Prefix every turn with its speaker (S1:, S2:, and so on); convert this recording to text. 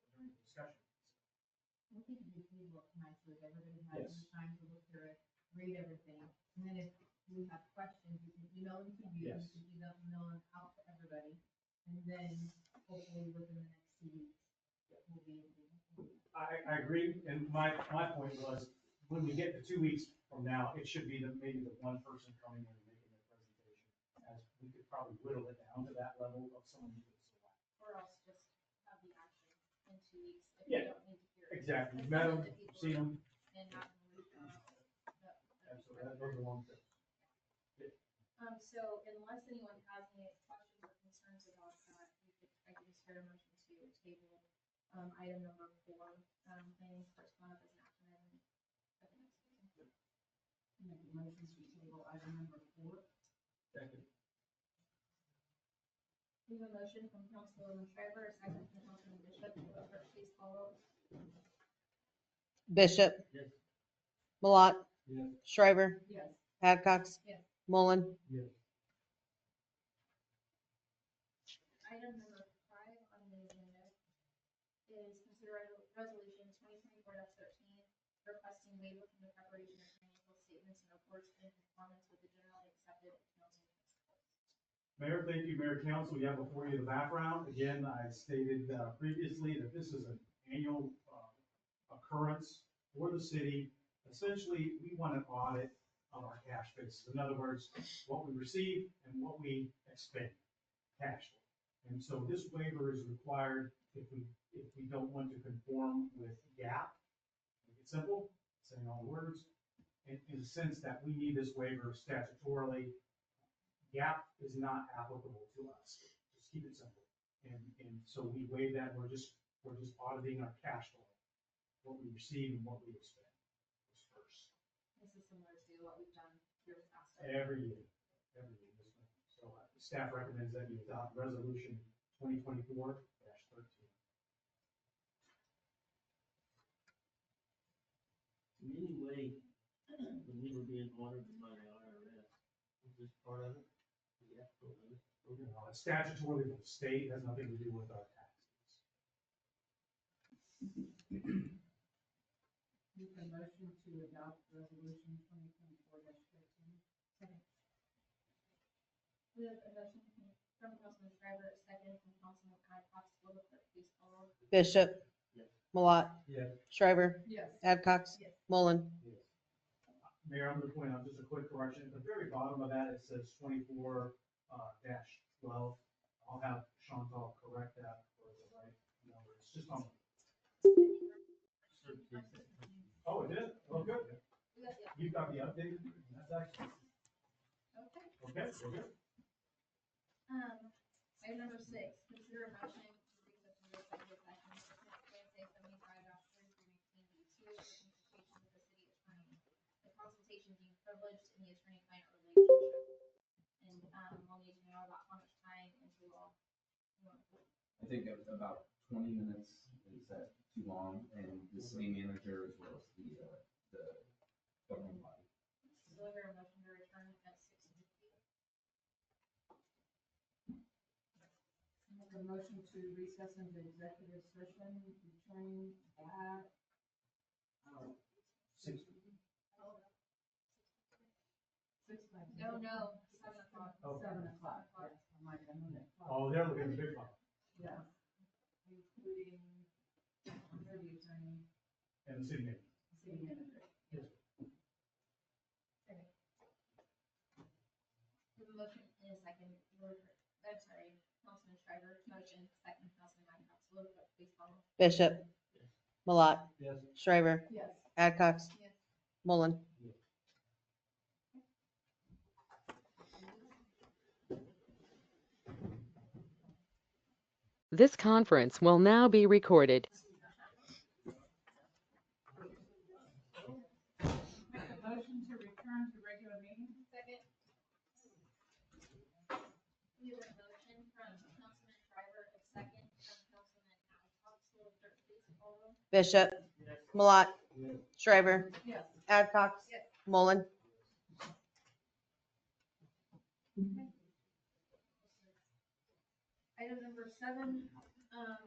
S1: discussion.
S2: I think it'd be reasonable to come out so that everybody has
S3: Yes.
S2: time to look through it, read everything. And then if we have questions, you can email them to you, you
S3: Yes.
S2: can email them out to everybody. And then hopefully within the next two weeks, we'll be able to.
S3: I, I agree, and my, my point was, when we get to two weeks from now, it should be the, maybe the one person coming in and making their presentation. As we could probably whittle it down to that level of someone who could select.
S4: Or else just have the action in two weeks if
S3: Yeah,
S4: you don't need to hear it.
S3: Exactly,
S4: Let's
S3: met
S4: let
S3: them,
S4: the people
S3: seen them,
S4: And have them move on. That- that'd be
S3: absolutely,
S4: perfect.
S3: that- those are the ones that.
S4: Um, so unless anyone has any questions or concerns about that, we could, I could just hear a motion to table, um, item number four, um, planning correspondence as an action item. at the next meeting.
S2: Make a motion to table item number four.
S3: Second.
S4: We have a motion from Councilwoman Shriver, a second from Councilman Bishop, will the clerk please call roll?
S5: Bishop.
S3: Yes.
S5: Malott.
S3: Yes.
S5: Shriver.
S2: Yes.
S5: Adcox.
S4: Yes.
S5: Mullen.
S4: Item number five on the agenda is consider re- resolution twenty twenty-four thirteen, requesting waiver from the preparation of financial statements and reports in conformance with the generally accepted accounting principles.
S3: Mayor, thank you, Mayor Council. You have before you the background. Again, I stated uh, previously that this is an annual uh, occurrence for the city. Essentially, we want an audit of our cash basis. In other words, what we receive and what we expend cash. And so this waiver is required if we, if we don't want to conform with GAAP. Make it simple, saying all the words. In, in the sense that we need this waiver statutorily gap is not applicable to us. Just keep it simple. And, and so we waive that, we're just, we're just auditing our cash flow, what we receive and what we expend is first,
S4: This is similar to what we've done here with ASTA.
S3: every year, every year. this one. So uh, staff recommends that you adopt resolution twenty twenty-four thirteen.
S6: In any way, when we were being audited by the IRS, was this part of it? Yeah.
S3: It's statutorily from the state, has nothing to do with our taxes.
S2: Make a motion to adopt resolution twenty twenty-four dash thirteen. Second.
S4: We have a motion from from Councilman Shriver, a second from Councilman Adcox, will the clerk please call roll?
S5: Bishop.
S6: Yes.
S5: Malott.
S3: Yes.
S5: Shriver.
S2: Yes.
S5: Adcox.
S2: Yes.
S5: Mullen.
S3: Mayor, I'm gonna point out just a quick correction, at the very bottom of that, it says twenty-four, uh, dash twelve. I'll have Chantal correct that for the right number, it's just on, oh, it is, oh, good,
S4: We got the,
S3: you got the update, that's actually,
S4: okay.
S3: okay, we're good.
S4: Um, item number six, consider a motion to reconsider the executive session pursuant to KSA seventy-five dot B two, for consultation with the city attorney. The consultation being privileged in the attorney-client relationship. And, um, we'll need to know about how much time and who all.
S7: I think of about twenty minutes is that too long, and the city manager as well as the, uh, the governing body.
S4: Deliver a motion to return at six fifty.
S2: Make a motion to recess into executive session, return at
S3: Six,
S2: six like.
S4: No, no, seven o'clock.
S3: oh,
S2: Seven o'clock, yes, I'm like, I'm on that clock,
S3: oh, they're looking at the big one,
S2: yes. Including thirty attorney,
S3: and the city manager.
S2: city manager.
S4: We have a motion in a second, Will the clerk- I'm sorry, Councilman Shriver, motion, second, Councilman Adcox, will the clerk please call roll?
S5: Bishop. Malott.
S3: Yes.
S5: Shriver.
S2: Yes.
S5: Adcox.
S4: Yes.
S5: Mullen.
S8: This conference will now be recorded.
S2: Make a motion to return to regular meeting?
S4: Second. We have a motion from Councilman Shriver, a second from Councilman Adcox, will the clerk please call roll?
S5: Bishop. Malott. Shriver.
S2: Yes.
S5: Adcox.
S4: Yes.
S5: Mullen.
S4: Item number seven, um,